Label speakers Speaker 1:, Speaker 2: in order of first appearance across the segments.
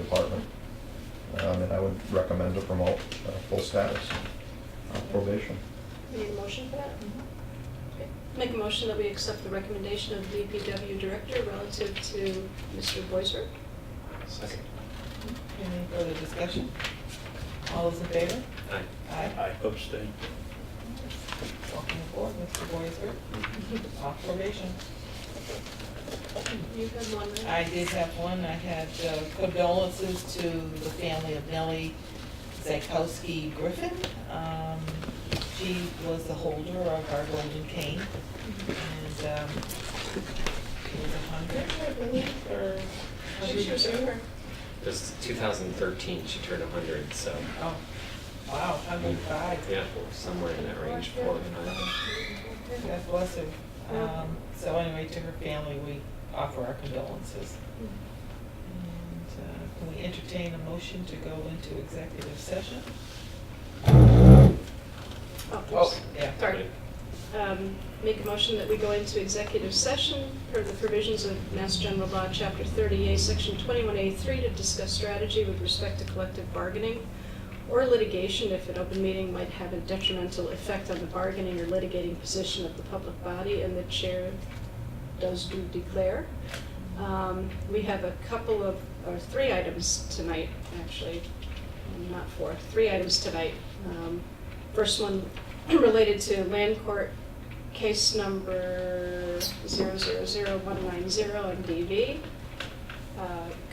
Speaker 1: department. Um, And I would recommend to promote uh, full status of probation.
Speaker 2: We Need a motion for that?
Speaker 3: Mm-hmm.
Speaker 2: Okay. Make a motion that we accept the recommendation of the DPW director relative to Mr. Boisert.
Speaker 4: Second.
Speaker 3: Any further discussion? All those in favor?
Speaker 4: Aye.
Speaker 3: Aye.
Speaker 5: I abstain.
Speaker 3: Welcome aboard, Mr. Boiser, off probation.
Speaker 2: You had one, right?
Speaker 3: I did have one, I had uh, condolences to the family of Nellie Zakowski Griffin. Um, She was the holder of our golden cane, and um, she was a hundred, I believe, or
Speaker 2: I think she was
Speaker 3: 102?
Speaker 2: over.
Speaker 4: It was 2013, she turned 100, so.
Speaker 3: Oh, wow, hundred and five.
Speaker 4: Yeah, somewhere in that range, four or five.
Speaker 3: God bless her. Um, So anyway, to her family, we offer our condolences. And uh, can we entertain a motion to go into executive session?
Speaker 2: Oh, oops.
Speaker 3: Yeah.
Speaker 2: sorry. Um, Make a motion that we go into executive session per the provisions of Mass General Law, Chapter 30A, Section 21A3, to discuss strategy with respect to collective bargaining or litigation if an open meeting might have a detrimental effect on the bargaining or litigating position of the public body, and the chair does do declare. Um, We have a couple of, or three items tonight, actually, not four, three items tonight. Um, First one related to land court case number 000190 and DV. uh,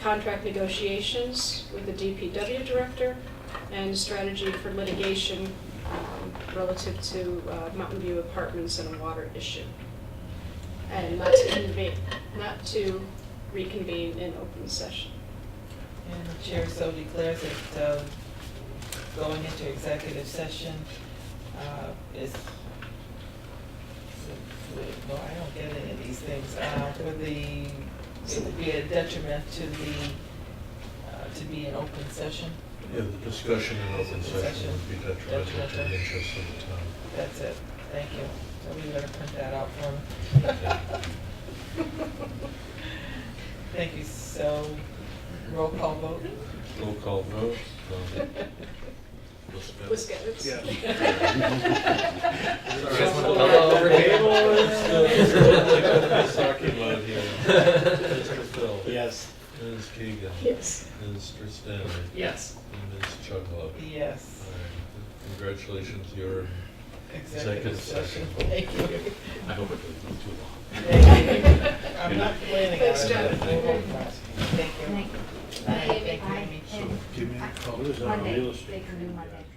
Speaker 2: Contract negotiations with the DPW director and strategy for litigation um, relative to uh, Mountain View Apartments and a water issue. And not to convene, not to reconvene in open session.
Speaker 3: And the chair so declares that uh, going into executive session uh, is, no, I don't get any of these things, Uh, for the, it would be a detriment to the, uh, to be an open session.
Speaker 5: Yeah, the discussion in open session would be detrimental to
Speaker 3: Detrimental.
Speaker 5: the interests of the town.
Speaker 3: That's it, thank you. Somebody better print that out for me. Thank you, so, roll call vote?
Speaker 5: Roll call vote. um, Lisbeth.
Speaker 2: Wiskevitz?
Speaker 4: You guys want to come over here?
Speaker 5: Saki mode here. Mr. Phil.
Speaker 4: Yes.
Speaker 5: Ms. Keegan.
Speaker 2: Yes.
Speaker 5: Mr. Stanley.
Speaker 4: Yes.
Speaker 5: And Ms. Chuglo.
Speaker 3: Yes.
Speaker 5: Congratulations, you're Executive session.
Speaker 3: Thank you.
Speaker 5: I hope it doesn't go too long.
Speaker 3: Thank you. I'm not planning on it.
Speaker 2: Thanks, Jen.
Speaker 3: Thank you.
Speaker 6: Thank you.
Speaker 3: Thank you, Amy.
Speaker 6: Give me a call. Monday, they can do Monday.